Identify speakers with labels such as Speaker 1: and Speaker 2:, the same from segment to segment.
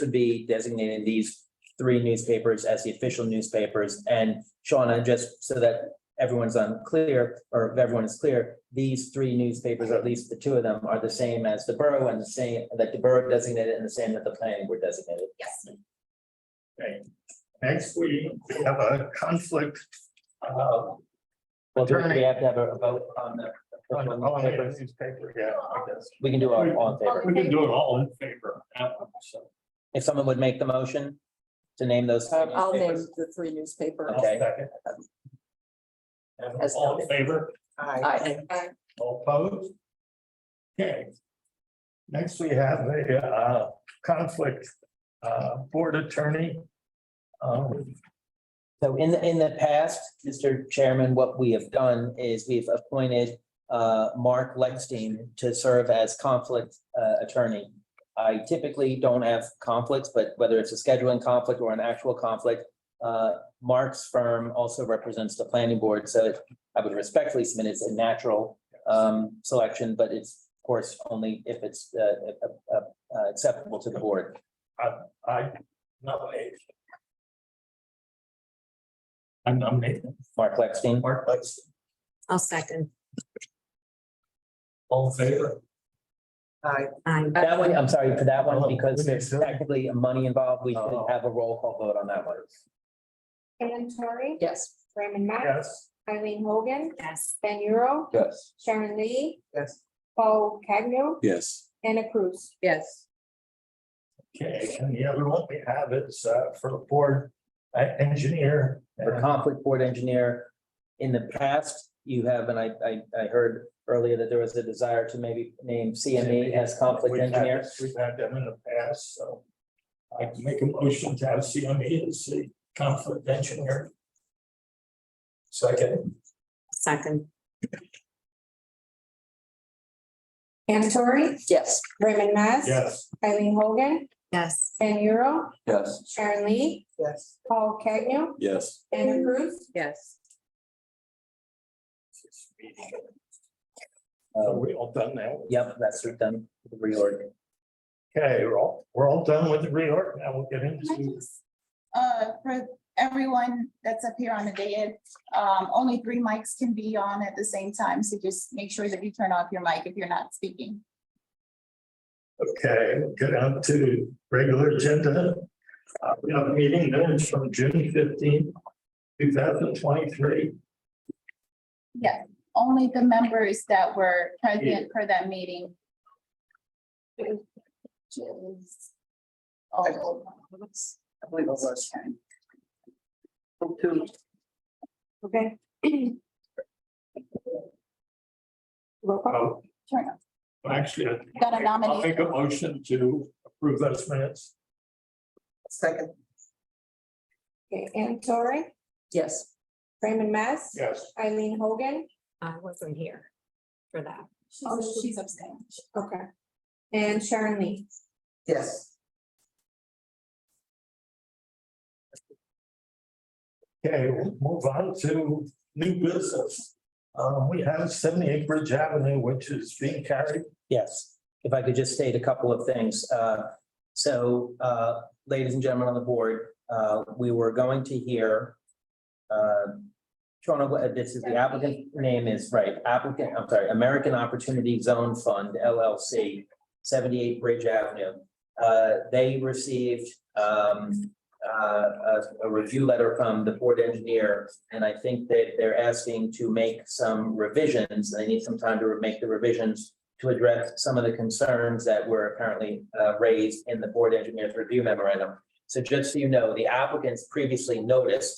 Speaker 1: would be designated these three newspapers as the official newspapers. And Shauna, just so that everyone's unclear, or if everyone is clear, these three newspapers, or at least the two of them, are the same as the borough and the same, that the borough designated and the same that the planning board designated.
Speaker 2: Yes.
Speaker 3: Okay, next we have a conflict. uh,
Speaker 1: Well, do we have to have a vote on the.
Speaker 3: On the
Speaker 1: official
Speaker 3: on the
Speaker 1: newspapers?
Speaker 3: newspaper, yeah, I guess.
Speaker 1: We can do all all in favor.
Speaker 3: We can do it all in favor. uh, so
Speaker 1: If someone would make the motion to name those. three
Speaker 2: Um, I'll name
Speaker 1: newspapers.
Speaker 2: the three newspapers.
Speaker 3: I'll
Speaker 1: Okay.
Speaker 3: second.
Speaker 2: As
Speaker 3: All in
Speaker 2: noted.
Speaker 3: favor,
Speaker 2: Aye.
Speaker 3: all opposed? Okay. Next, we have a uh, conflict uh, board attorney. Um,
Speaker 1: So in the, in the past, Mr. Chairman, what we have done is we've appointed uh, Mark Lexstein to serve as conflict uh, attorney. I typically don't have conflicts, but whether it's a scheduling conflict or an actual conflict, uh, Mark's firm also represents the planning board, so it- I would respectfully submit it's a natural um, selection, but it's of course only if it's uh, uh, uh, uh, acceptable to the board.
Speaker 3: I nominate. I'm nominating
Speaker 1: Mark Lexstein.
Speaker 3: Mark Lexton.
Speaker 4: I'll second.
Speaker 3: All in favor?
Speaker 4: Aye.
Speaker 1: That one, I'm sorry for that
Speaker 3: Oh,
Speaker 1: one, because there's
Speaker 3: okay.
Speaker 1: technically money involved. We should
Speaker 3: Oh.
Speaker 1: have a roll call vote on that one.
Speaker 5: Tori,
Speaker 2: Yes.
Speaker 5: Raymond Mack,
Speaker 3: Yes.
Speaker 5: Eileen Hogan,
Speaker 4: Yes.
Speaker 5: Ben Euro,
Speaker 1: Yes.
Speaker 5: Sharon Lee,
Speaker 2: Yes.
Speaker 5: Paul Cagnon,
Speaker 6: Yes,
Speaker 5: Anna Cruz.
Speaker 2: Yes.
Speaker 3: Okay, and the other one we have is uh, for the board uh, engineer.
Speaker 1: For conflict board engineer, in the past, you have, and I, I, I heard earlier that there was a desire to maybe name
Speaker 3: E.
Speaker 1: CME as conflict
Speaker 3: We've had-
Speaker 1: engineer.
Speaker 3: We've had them in the past, so I can make a motion to have CME as the conflict engineer. Second,
Speaker 4: Second.
Speaker 5: Anna Tori,
Speaker 2: Yes.
Speaker 5: Raymond Mack.
Speaker 3: yes,
Speaker 5: Eileen Hogan,
Speaker 4: Yes.
Speaker 5: Ben Euro,
Speaker 6: yes,
Speaker 5: Sharon Lee,
Speaker 2: Yes.
Speaker 5: Paul Cagnon,
Speaker 6: yes,
Speaker 5: Anna Cruz.
Speaker 2: Yes.
Speaker 3: so
Speaker 1: Uh,
Speaker 3: we all done now.
Speaker 1: Yep, that's we've done the reorg.
Speaker 3: Okay, we're all, we're all done with the reorg, now we'll get into,
Speaker 7: uh, for everyone that's up here on the day, um, only three mics can be on at the same time, so just make sure that you turn off your mic if you're not speaking.
Speaker 3: okay, we'll get on to regular agenda. Uh, We have a meeting minutes from June fifteenth, two thousand twenty-three.
Speaker 7: Yeah, only the members that were present for that meeting. Just- Oh,
Speaker 2: I believe it was. Two.
Speaker 5: Okay. Roll call.
Speaker 3: Oh,
Speaker 7: turn off.
Speaker 3: actually. I-
Speaker 7: Got a
Speaker 3: I'll make a
Speaker 7: nomination.
Speaker 3: motion to approve those minutes.
Speaker 2: Second.
Speaker 5: Okay, Anna Tori,
Speaker 2: Yes.
Speaker 5: Raymond Mack.
Speaker 3: Yes.
Speaker 5: Eileen Hogan,
Speaker 4: I wasn't here for that.
Speaker 7: She's- She's abstaining.
Speaker 5: okay. And Sharon Lee.
Speaker 2: Yes.
Speaker 3: Okay, we'll move on to new business. Uh, we have seventy-eight Bridge Avenue, which is being carried.
Speaker 1: Yes, if I could just state a couple of things. Uh, So, uh, ladies and gentlemen on the board, uh, we were going to hear. um, Shawna, what- this is the applicant name is right, applicant, I'm sorry, American Opportunity Zone Fund LLC, seventy-eight Bridge Avenue. Uh, They received um, uh, a a review letter from the board engineer, and I think that they're asking to make some revisions. They need some time to make the revisions to address some of the concerns that were apparently uh, raised in the board engineer's review memorandum. So just so you know, the applicants previously noticed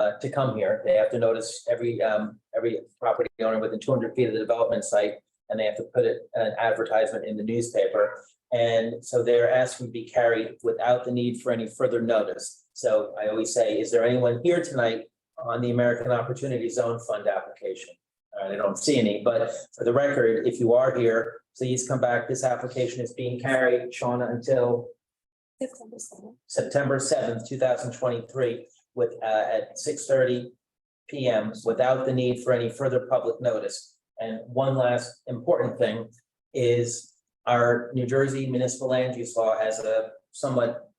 Speaker 1: uh, to come here. They have to notice every, um, every property owner within two hundred feet of the development site, and they have to put it, an advertisement in the newspaper. And so they're asking to be carried without the need for any further notice. So I always say, is there anyone here tonight on the American Opportunity Zone Fund application? Uh, I don't see any, but for the record, if you are here, please come back. This application is being carried, Shauna, until
Speaker 5: September seventh.
Speaker 1: September seventh, two thousand twenty-three with, uh, at six thirty PM without the need for any further public notice. And one last important thing is our New Jersey municipal land use law has a somewhat